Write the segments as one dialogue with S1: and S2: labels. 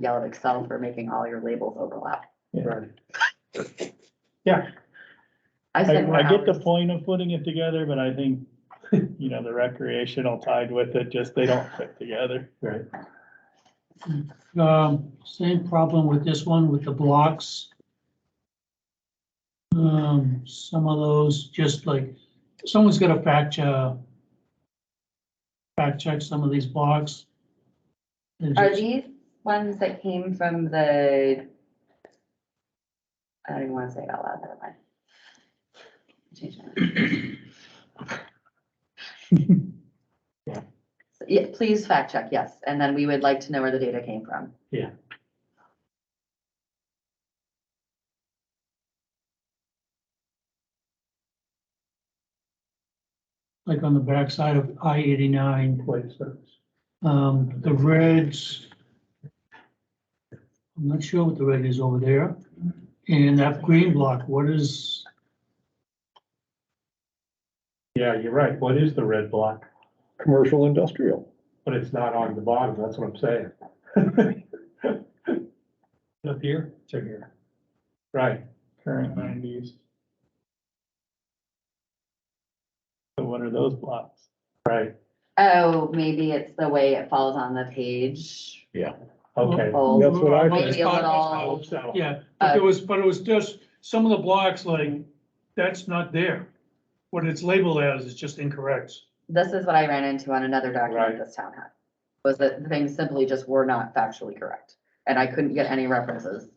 S1: yell at Excel for making all your labels overlap.
S2: Right.
S1: I
S2: I,
S1: spent more
S2: I get the
S1: hours.
S2: point of putting it together, but I think, you know, the recreational tied with it, just they don't fit together.
S3: Right.
S4: Um, same problem with this one with the blocks. Um, some of those, just like, someone's gotta fact, uh, fact check some of these blocks. They're
S1: Are
S4: just-
S1: these ones that came from the? I don't even wanna say it out loud, never mind. Change that.
S3: Yeah.
S1: So, Yeah, please fact check, yes, and then we would like to know where the data came from.
S3: Yeah.
S4: Like on the backside of I eighty-nine.
S3: Employee service.
S4: Um, the reds. I'm not sure what the red is over there. And that green block, what is,
S3: Yeah, you're right. What is the red block?
S2: Commercial industrial.
S3: But it's not on the bottom, that's what I'm saying. Up here? To here. Right,
S2: Current land use. So what are those blocks?
S3: right,
S1: Oh, maybe it's the way it falls on the page.
S3: okay.
S1: Oh,
S2: That's what I
S1: Maybe a little,
S3: Hope so.
S4: yeah, but
S1: Uh,
S4: it was, but it was just, some of the blocks like, that's not there. What it's labeled as is just incorrect.
S1: this is what I ran into on another document
S3: Right.
S1: this town had. Was that the things simply just were not factually correct, and I couldn't get any references.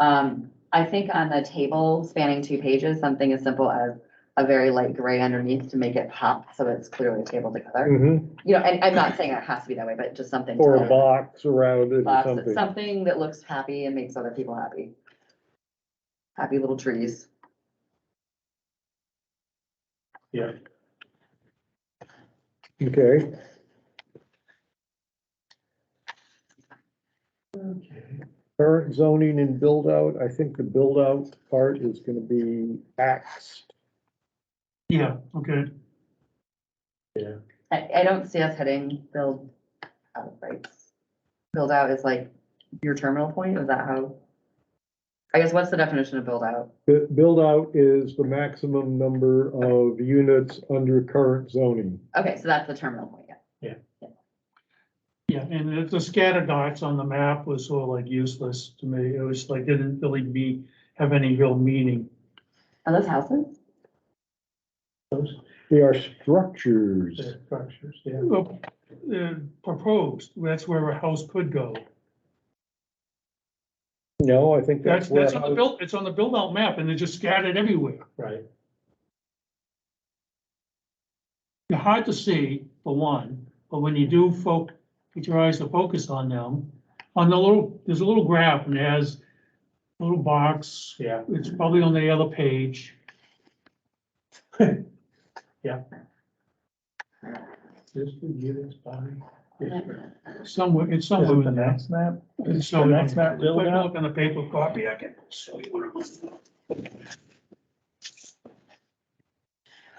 S1: Um, I think on the table spanning two pages, something as simple as a very light gray underneath to make it pop, so it's clearly tabled together.
S5: Mhm.
S1: You know, and I'm not saying it has to be that way, but just something. to
S5: Or a
S1: like-
S5: box around it or
S1: Lots of-
S5: something.
S1: something that looks happy and makes other people happy. Happy little trees.
S3: Yeah,
S5: Okay, current zoning and build out, I think the build out part is gonna be axed.
S4: Yeah, okay.
S3: yeah.
S1: I, I don't see us heading build out, right? Build out is like your terminal point, is that how? I guess what's the definition of build out?
S5: The build out is the maximum number of units under current zoning.
S1: Okay, so that's the terminal point, yeah.
S4: Yeah, and the- the scatter dots on the map was sort of like useless to me. It was like, didn't really be, have any real meaning.
S1: Are those houses?
S3: Those
S5: They are structures.
S3: are structures, yeah.
S4: Well, uh, Proposed, that's where a house could go.
S5: No, I think
S4: That's,
S5: that's
S4: that's
S5: what,
S4: on the build, it's on the build out map and they're just scattered everywhere.
S3: Right,
S4: They're hard to see, for one, but when you do folk, get your eyes to focus on them. On the little, there's a little graph and it has a little box,
S3: yeah,
S4: it's probably on the other page.
S3: this would give us by.
S4: Somewhere, it's
S2: Is
S4: somewhere
S2: it the
S4: in there.
S2: next map?
S4: It's
S2: The
S4: somewhere.
S2: next map
S4: If
S2: build
S4: I
S2: out?
S4: look on the paper copy, I can show you what it was.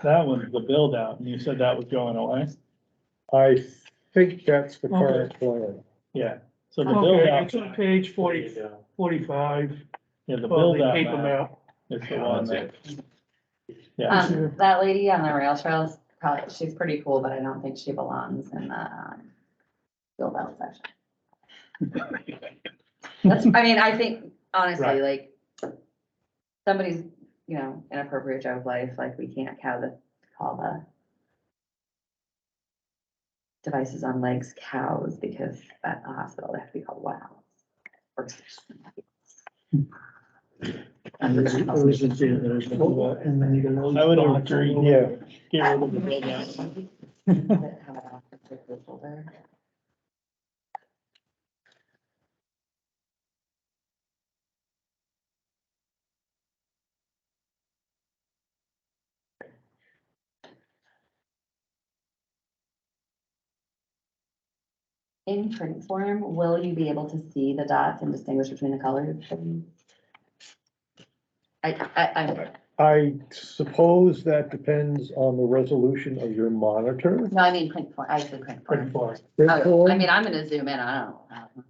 S2: That one's the build out, and you said that was going away?
S5: I think that's the
S4: Okay.
S5: current plan.
S2: Yeah, so the build
S4: Okay,
S2: out,
S4: it's on page
S3: There
S4: forty,
S3: you go.
S4: forty-five,
S2: yeah, the
S4: of
S2: build
S4: the
S2: out
S4: paper
S2: map
S4: map.
S2: is the one that. Yeah,
S1: Um, that lady on the rail trails, probably, she's pretty cool, but I don't think she belongs in the, um, build out section. That's, I mean, I think honestly,
S3: Right.
S1: like, somebody's, you know, inappropriate joke life, like, we can't cow the, call the devices on legs cows because at the hospital, they have to be called wows. Or-
S2: I would agree,
S5: Yeah.
S2: get rid of the build out.
S1: In print form, will you be able to see the dots and distinguish between the colors? I, I, I,
S5: I suppose that depends on the resolution of your monitor.
S1: no, I mean print form, I said print form.
S3: Print form.
S1: Oh,
S5: Therefore-
S1: I mean, I'm gonna zoom in, I don't. know.